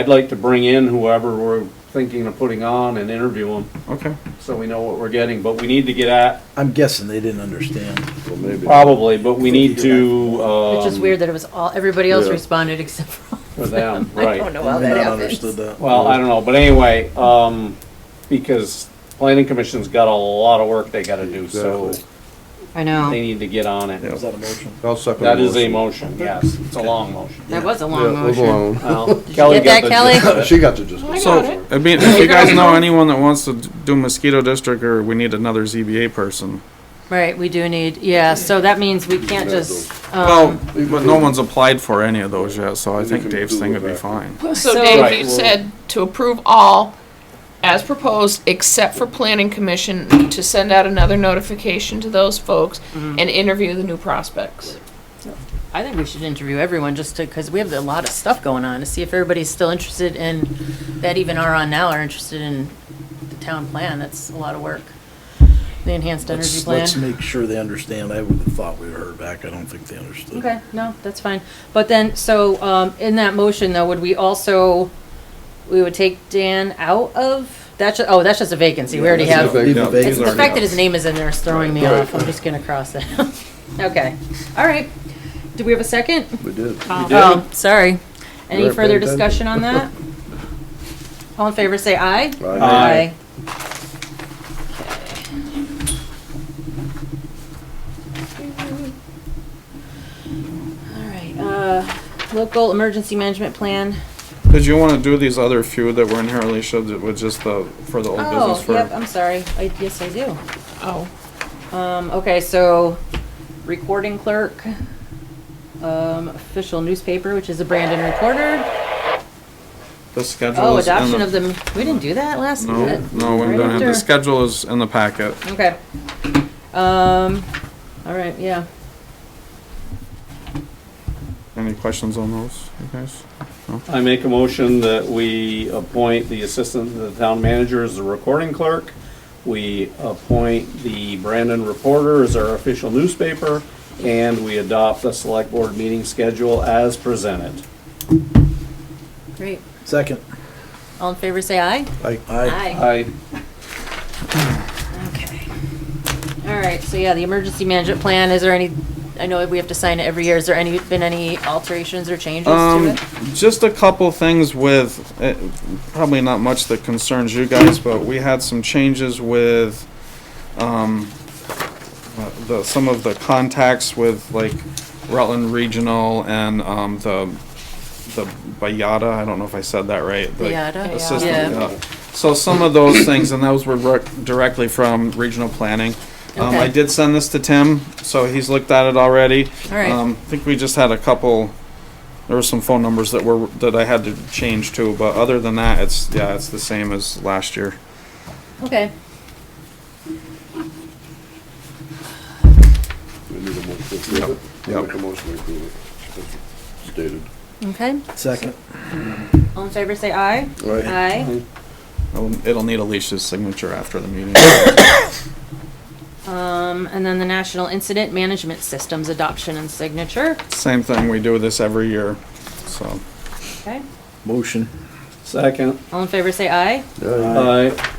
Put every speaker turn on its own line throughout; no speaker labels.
I'd like to bring in whoever we're thinking of putting on and interview them,
Okay.
so we know what we're getting, but we need to get at,
I'm guessing they didn't understand.
Well, maybe.
probably, but we need to, um.
Which is weird that it was all, everybody else
Yeah.
responded except for.
For them,
I
right.
don't know how
They
that
not
happens.
understood that.
Well, I don't know, but anyway, um, because planning commission's got a lot of work they gotta do, so
Exactly.
they
I know.
need to get on it.
Yeah.
Is that a motion?
I'll second.
That is a
motion.
motion, yes, it's a long motion.
That was a
Yeah,
long
leave
motion.
alone.
Well,
you
Kelly
get that,
got the
Kelly?
gist of it.
She got to just.
So, I mean, if you guys know anyone that wants to do mosquito district or we need another ZBA person.
Right, we do need, yeah, so that means we can't just,
Well,
um,
but no one's applied for any of those yet, so I
You
think
can
Dave's
do
thing would
it
be
back.
fine.
So
So-
Right,
Dave, you
well-
said to approve all as proposed, except for planning commission, to send out another notification to those folks and interview the new prospects.
I think we should interview everyone just to, because we have a lot of stuff going on, to see if everybody's still interested in, that even are on now are interested in the town plan. That's a lot of work. The enhanced energy
Let's,
plan.
let's make sure they understand. I would have thought we heard back. I don't think they understood.
Okay, no, that's fine. But then, so, um, in that motion though, would we also, we would take Dan out of, that's, ju- oh, that's just a vacancy, we already
That's
have.
just a vac-
Leave it
Yeah,
vacant.
It's the
already
fact
out.
that his name is in there is throwing me
Right.
off, I'm just gonna cross that out. Okay, all right. Do we have a second?
We did.
Oh, sorry. Any
We're
further
paying attention.
discussion on that? All in favor, say aye.
Aye.
All right, uh, local emergency management plan.
Did you wanna do these other few that were inherently should, that was just the, for the old business
Oh, yep,
for?
I'm sorry. I, yes, I do.
Oh,
Um, okay, so recording clerk, um, official newspaper, which is the Brandon Recorder.
The schedule
Oh,
is in
adoption of the, we didn't do that last?
No,
that-
no, we
right
don't have, the
after-
schedule is in the packet.
Okay. Um, all right, yeah.
Any questions on those, you guys?
I make a motion that we appoint the assistant to the town manager as the recording clerk. We appoint the Brandon Reporter as our official newspaper, and we adopt the select board meeting schedule as presented.
Great.
Second.
All in favor, say aye.
Aye.
I,
Okay. All right, so yeah, the emergency management plan, is there any, I know we have to sign it every year, is there any, been any alterations or changes to
Um,
it?
just a couple things with, uh, probably not much that concerns you guys, but we had some changes with, um, uh, the, some of the contacts with like Rutland Regional and, um, the, the Bayada, I don't know if I said that right. the
Bayada?
Assistant,
Yeah.
uh, so some of those things, and those were rec- directly from regional planning. Um, I
Okay.
did send this to Tim, so he's looked at it already.
All right.
Um, I think we just had a couple, there were some phone numbers that were, that I had to change to, but other than that, it's, yeah, it's the same as last year.
Okay.
We need a motion to approve it.
Yep.
Make a motion to approve it. as Stated.
Okay,
Second.
all in favor, say aye.
Right.
Aye.
It'll it'll need Alicia's signature after the meeting.
Um, and then the National Incident Management Systems Adoption and Signature.
Same thing, we do this every year, so.
Okay,
Motion.
second,
all in favor, say aye.
Aye.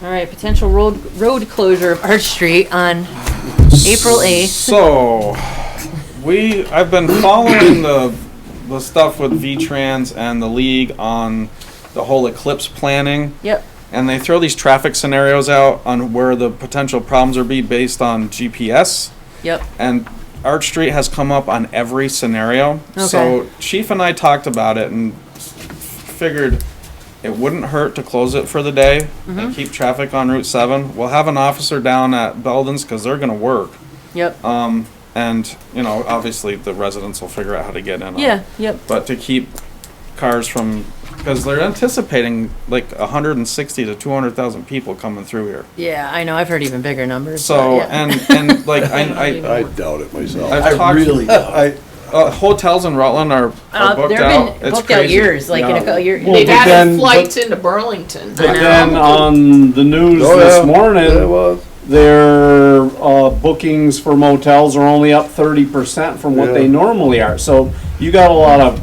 I,
All right, potential road, road closure of Arch Street on April 8th.
So, we, I've been following the, the stuff with V-Trans and the league on the whole eclipse planning.
Yep,
and they throw these traffic scenarios out on where the potential problems are be based on GPS.
yep,
And Arch Street has come up on every scenario. So
Okay.
Chief and I talked about it and s- figured it wouldn't hurt to close it for the day
Mm-hmm.
and keep traffic on Route Seven. We'll have an officer down at Belden's because they're going to work.
yep.
Um, and you know, obviously the residents will figure out how to get in. on it
Yeah, yep,
but to keep cars from because they're anticipating like 160 to 200,000 people coming through here.
yeah, I know, I've heard even bigger numbers. but
So
yeah.
and and like I, I
I doubt it myself.
I've
I
talked
really doubt
I, uh, hotels in Rutland are, are
Uh,
booked
they've
out.
been
it's
booked out
crazy.
years, like in a couple years.
Well,
They've
but
added
then-
flights into Burlington.
but then on the news
Oh, yeah.
this
Yeah, it
morning,
was.
their, uh, bookings for motels are only up thirty percent from what
Yeah.
they normally are, so you got a lot of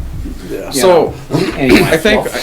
Yeah.
So,
Anyway,
I think,
well-